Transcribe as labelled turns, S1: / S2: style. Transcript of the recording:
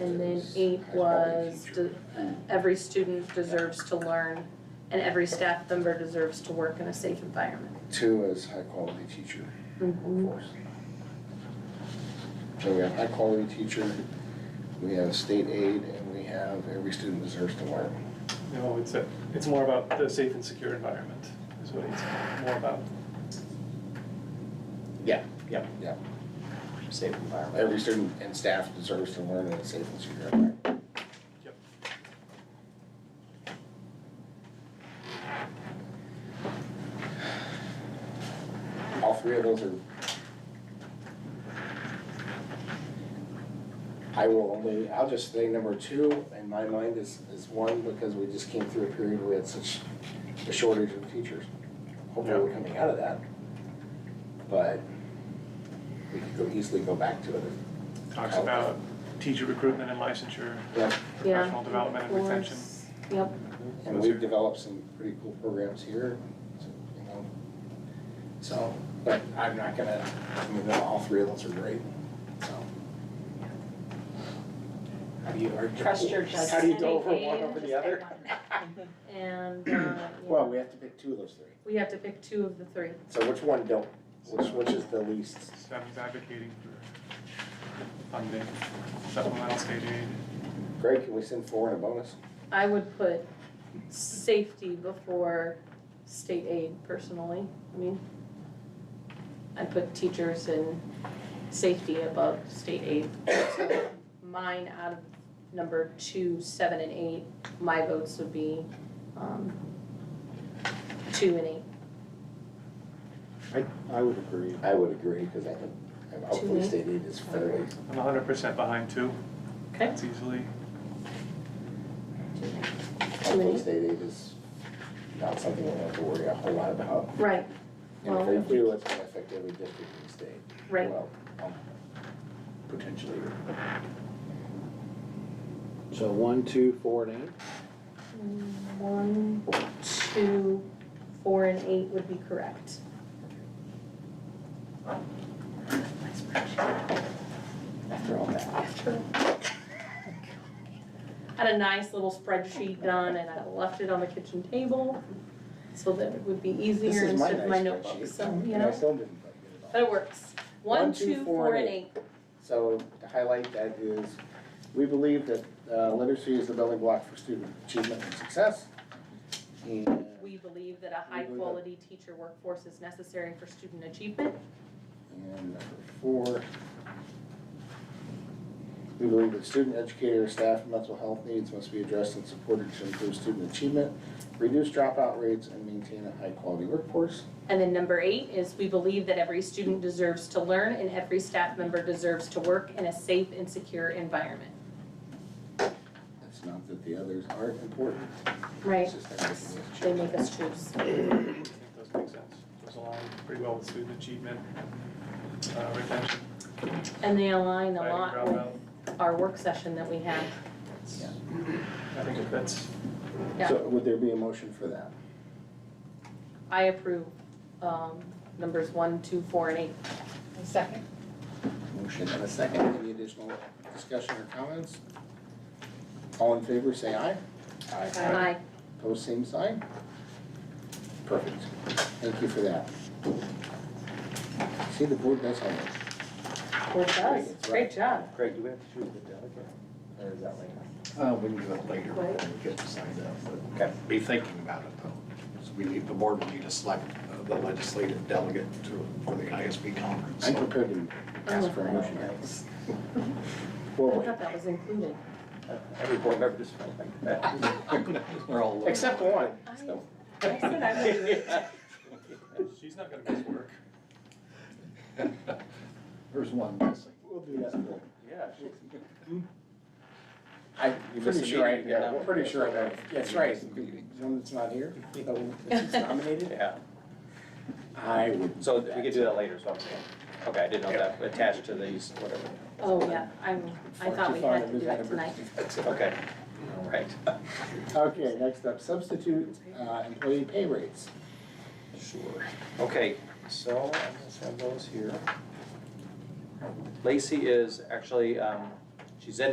S1: And then eight was de- every student deserves to learn and every staff member deserves to work in a safe environment.
S2: Two is high quality teacher
S1: Mhm.
S2: workforce. So we have high quality teacher, we have state aid, and we have every student deserves to learn.
S3: No, it's a, it's more about the safe and secure environment is what it's more about.
S2: Yeah.
S4: Yeah.
S2: Yeah,
S4: Safe environment.
S2: every student and staff deserves to learn in a safe and secure environment.
S3: Yep.
S2: All three of those are. I will only, I'll just say number two in my mind is, is one because we just came through a period where we had such a shortage of teachers. Hopefully we're coming out of that. But we could go easily go back to it.
S3: Talks about teacher recruitment and licensure,
S2: Yep.
S1: Yeah.
S3: professional development and retention.
S1: Course. Yep,
S2: And we've developed some pretty cool programs here, you know. So, but I'm not gonna, I mean, all three of those are great, so. How do you argue?
S5: Trust your judgment.
S2: How do you go over one over the other?
S1: and, uh, yeah.
S2: Well, we have to pick two of those three.
S1: We have to pick two of the three.
S2: So which one don't, which, which is the least?
S3: So that means advocating for funding, supplemental state aid.
S2: Greg, can we send four and a bonus?
S1: I would put safety before state aid personally, I mean. I put teachers and safety above state aid, so mine out of number two, seven and eight, my votes would be, um, two and eight.
S6: I would agree.
S2: I would agree, because I think, hopefully state aid is fairly,
S3: I'm hundred percent behind two.
S1: Okay.
S3: It's easily,
S2: hopefully state aid is not something we have to worry a whole lot about.
S1: Right,
S2: And
S1: Well-
S2: if we do, it's gonna affect every district in the state.
S1: right,
S2: Well, um, Potentially.
S6: So one, two, four, and eight?
S1: one, two, four and eight would be correct.
S2: After all that.
S1: had a nice little spreadsheet done and I left it on the kitchen table so that it would be
S2: This
S1: easier
S2: is my
S1: instead of my
S2: nice
S1: notebook,
S2: spreadsheet.
S1: so,
S2: And
S1: you
S2: I
S1: know,
S2: still didn't quite get it all.
S1: but it works. One, two, four, and eight.
S2: So to highlight that is, we believe that uh, literacy is the building block for student achievement and success. And We
S1: We believe that a
S2: believe that-
S1: high-quality teacher workforce is necessary for student achievement.
S2: And number four, we believe that student, educator, staff, and mental health needs must be addressed and supported to improve student achievement, reduce dropout rates, and maintain a high-quality workforce.
S1: And then number eight is we believe that every student deserves to learn and every staff member deserves to work in a safe and secure environment.
S2: It's not that the others aren't important.
S1: Right,
S2: It's just that we
S1: they
S2: need to
S1: make us choose.
S3: I think those make sense. Those align pretty well with student achievement, uh, retention,
S1: And they align a
S3: fighting
S1: lot with
S3: dropout.
S1: our work session that we have.
S3: It's- I think that's,
S1: Yeah.
S2: check. So would there be a motion for that?
S1: I approve, um, numbers one, two, four, and eight.
S5: Second.
S2: Motion and a second. Any additional discussion or comments? All in favor, say aye.
S1: Aye.
S2: Opposed, same sign? Perfect. Thank you for that. See, the board does have it.
S1: Well, it does, great job.
S4: Craig, do we have to choose the delegate? Or is that later?
S6: Uh, we can do it later when
S1: Right.
S6: we get signed up,
S4: Okay.
S6: but be thinking about it though. So we need, the board will need to select uh, the legislative delegate to, for the ISB conference.
S2: I'm
S6: So
S2: prepared to ask for
S1: Oh,
S2: a motion.
S1: I
S2: Well,
S1: thought that was included.
S4: Uh, Every board member just felt like that.
S6: We're all.
S2: except one.
S1: I
S2: so.
S1: I said I would do it.
S3: she's not gonna miss work.
S6: There's one missing.
S2: We'll do that.
S4: Yeah.
S2: I,
S4: You missed
S2: pretty
S4: a
S2: sure I,
S4: meeting,
S2: yeah,
S4: yeah.
S2: I'm pretty sure I know. That's right.
S4: You missed a meeting.
S2: One that's not here, so if it's nominated,
S4: Yeah,
S2: I would.
S4: so we could do that later, so I'm saying, okay, I didn't know that, attached to these, whatever.
S1: Oh, yeah, I, I thought we had to do that tonight.
S4: Okay, all right.
S2: Okay, next up, substitute, uh, employee pay rates.
S4: Sure. Okay, so I just have those here. Lacey is actually, um, she's in